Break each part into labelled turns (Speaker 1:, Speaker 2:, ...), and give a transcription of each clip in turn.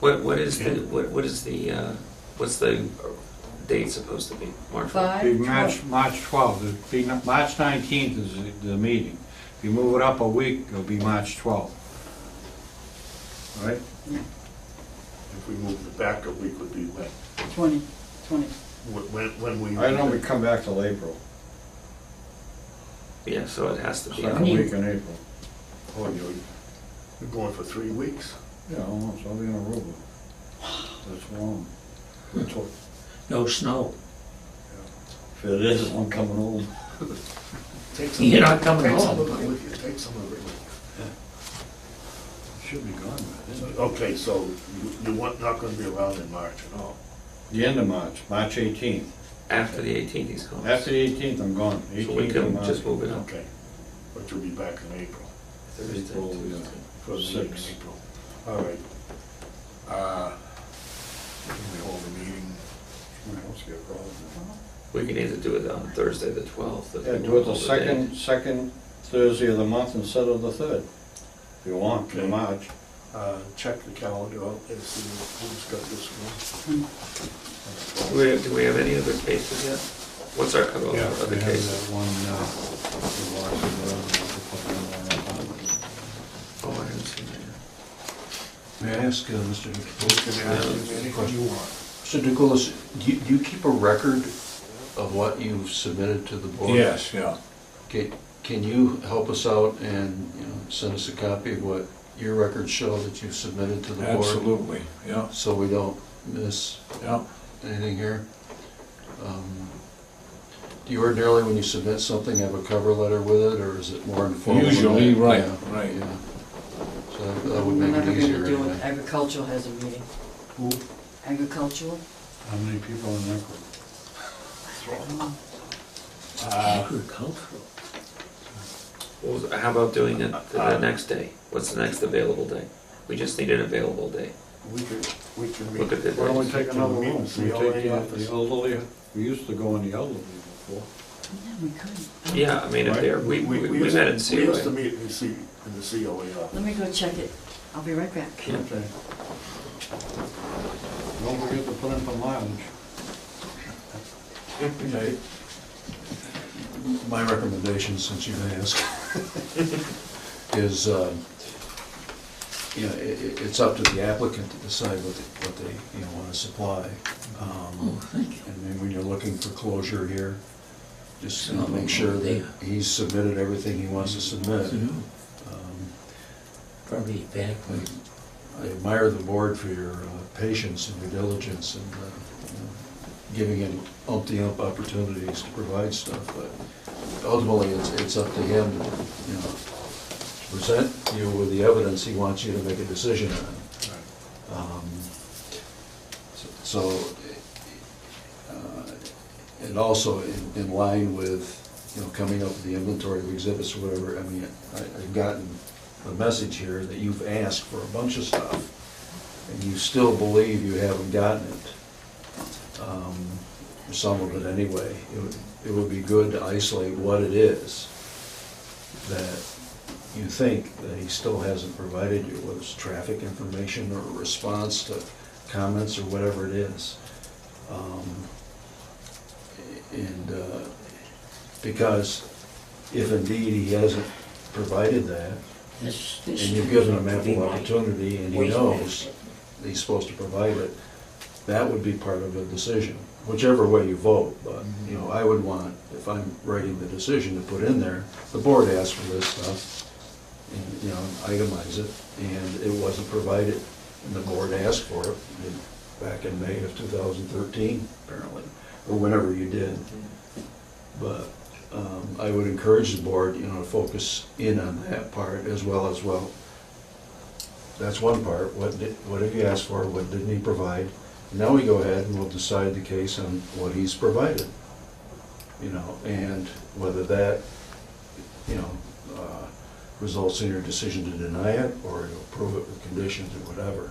Speaker 1: What, what is the, what, what is the, uh, what's the date supposed to be? March what?
Speaker 2: Five,
Speaker 3: Be
Speaker 2: twelve.
Speaker 3: March, March twelfth, it'd be, n- March nineteenth is the- the meeting. If you move it up a week, it'll be March twelfth. All right?
Speaker 4: If we moved it back a week would be when,
Speaker 2: Twenty, twenty.
Speaker 4: Wh- when, when we.
Speaker 3: I know we come back till April,
Speaker 1: Yeah, so it has to be.
Speaker 3: second week in April.
Speaker 4: Oh, you're, you're going for three weeks?
Speaker 3: Yeah, almost, I'll be in Aruba. That's long. That's what-
Speaker 5: no snow.
Speaker 3: If it is, I'm coming home.
Speaker 4: Take some-
Speaker 5: You're not coming
Speaker 4: Take some
Speaker 5: home.
Speaker 4: of it with you, take some of it with
Speaker 3: Should be gone by then.
Speaker 4: you. Okay, so you, you weren't, not gonna be around in March at all?
Speaker 3: The end of March, March eighteenth.
Speaker 1: After the eighteenth, he's gone.
Speaker 3: After the eighteenth, I'm gone.
Speaker 1: So we
Speaker 3: 18th of
Speaker 1: can
Speaker 3: March.
Speaker 1: just move it up.
Speaker 4: Okay, but you'll be back in April,
Speaker 1: Thursday,
Speaker 3: April, yeah.
Speaker 1: Tuesday.
Speaker 4: for the meeting
Speaker 3: Six.
Speaker 4: in April. All right. Uh, Can we hold a meeting?
Speaker 3: Someone else get robbed.
Speaker 1: We can either do it on Thursday, the twelfth.
Speaker 3: Yeah, do it the second, second Thursday of the month instead of the third, if you want,
Speaker 4: Okay.
Speaker 3: in March.
Speaker 4: Uh, check the calendar out and see who's got this one.
Speaker 1: Do we, have- do we have any other cases yet? What's our cutoff
Speaker 3: Yeah,
Speaker 1: for other
Speaker 3: we have
Speaker 1: cases?
Speaker 3: that uh, one, uh, the Lawson Road, we have to put in there.
Speaker 1: Oh, I haven't seen that.
Speaker 6: May I ask, uh, Mr.
Speaker 4: Can
Speaker 6: Nicholas,
Speaker 4: you
Speaker 1: Um,
Speaker 4: ask me anything you want?
Speaker 6: Mr. Nicholas, do you, do you keep a record of what you've submitted to the board?
Speaker 7: Yes, yeah.
Speaker 6: Can, can you help us out and, you know, send us a copy of what your records show that you've submitted to the board?
Speaker 7: Absolutely, yeah,
Speaker 6: So we don't miss
Speaker 7: yeah.
Speaker 6: anything here? Um, Do you ordinarily, when you submit something, have a cover letter with it, or is it more informal? than
Speaker 7: Usually,
Speaker 6: that?
Speaker 7: right,
Speaker 6: Yeah,
Speaker 7: right.
Speaker 6: Yeah. So that- that
Speaker 2: We're
Speaker 6: would make
Speaker 2: never
Speaker 6: it easier.
Speaker 2: gonna do
Speaker 6: anyway.
Speaker 2: it. Agricultural has a meeting.
Speaker 3: Who,
Speaker 2: Agricultural?
Speaker 3: how many people in that group?
Speaker 5: Agricultural.
Speaker 1: Well, how about doing it the next day? What's the next available day? We just need an available day.
Speaker 4: We could, we can meet.
Speaker 1: Look at the
Speaker 3: Why don't we
Speaker 1: dates.
Speaker 3: take another
Speaker 4: Meet
Speaker 3: room?
Speaker 4: and see
Speaker 3: We
Speaker 4: how
Speaker 3: take
Speaker 4: many
Speaker 3: the-
Speaker 4: officers.
Speaker 3: the elderly, we used to go in the elderly before.
Speaker 2: Yeah, we could.
Speaker 1: Yeah, I mean, if they're, we, we we
Speaker 4: used-
Speaker 1: met in
Speaker 4: We used
Speaker 1: COA.
Speaker 4: to meet in the C, in the COA office.
Speaker 2: Let me go check it. I'll be right back.
Speaker 1: Yeah.
Speaker 3: Okay. Don't forget to put in the mileage.
Speaker 6: Okay. My recommendation, since you asked, is, um, you know, i i- it's up to the applicant to decide what they, what they, you know, wanna supply. Um, And then when you're looking for closure here, just you know, make sure that he's submitted everything he wants to submit.
Speaker 5: Mhm.
Speaker 6: Um,
Speaker 5: Probably back when
Speaker 6: I admire the board for your uh, patience and your diligence and, uh, you know, giving him umpty-ump opportunities to provide stuff, but ultimately, it's, it's up to him, to, you know, to present you with the evidence he wants you to make a decision on. Um, So, uh, and also in- in line with, you know, coming up with the inventory of exhibits or whatever, I mean, I- I've gotten the message here that you've asked for a bunch of stuff, and you still believe you haven't gotten it. Um, Some of it anyway. It would, it would be good to isolate what it is that you think that he still hasn't provided you, whether it's traffic information or a response to comments or whatever it is. Um, And, uh, because if indeed he hasn't provided that,
Speaker 5: this,
Speaker 6: and
Speaker 5: this.
Speaker 6: you've given him ample
Speaker 5: Right.
Speaker 6: opportunity, and he
Speaker 5: Wait a minute.
Speaker 6: knows he's supposed to provide it, that would be part of the decision, whichever way you vote, but, you know, I would want, if I'm writing the decision to put in there, the board asked for this stuff, and, you know, itemize it, and it wasn't provided, and the board asked for it, in- back in May of two thousand thirteen, apparently, or whenever you did. But um, I would encourage the board, you know, to focus in on that part as well as, well, that's one part, what did, what have you asked for, what didn't he provide? Now we go ahead and we'll decide the case on what he's provided, you know, and whether that, you know, uh, results in your decision to deny it or to approve it with conditions or whatever.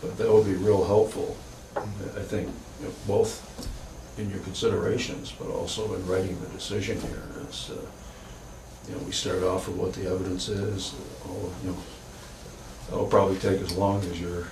Speaker 6: But that would be real helpful,
Speaker 3: Mm-hmm.
Speaker 6: I think, you know, both in your considerations, but also in writing the decision here is, uh, you know, we start off with what the evidence is, all, you know, it'll probably take as long as your